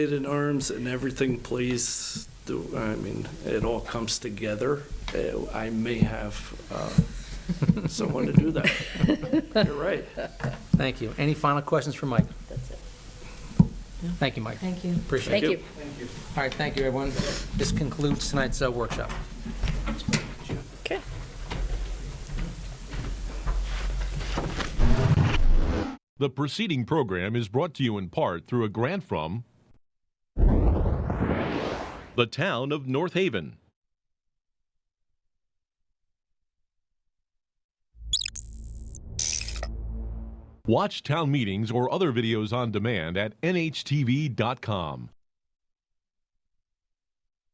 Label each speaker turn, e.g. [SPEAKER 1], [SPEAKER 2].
[SPEAKER 1] in arms and everything plays, to- I mean, it all comes together. Uh, I may have uh, someone to do that. You're right.
[SPEAKER 2] Thank you. Any final questions for Mike? Thank you, Mike.
[SPEAKER 3] Thank you.
[SPEAKER 2] Appreciate it.
[SPEAKER 3] Thank you.
[SPEAKER 2] All right, thank you, everyone. This concludes tonight's uh, workshop.
[SPEAKER 3] Okay.
[SPEAKER 4] The preceding program is brought to you in part through a grant from the town of North Haven. Watch town meetings or other videos on demand at nhtv.com.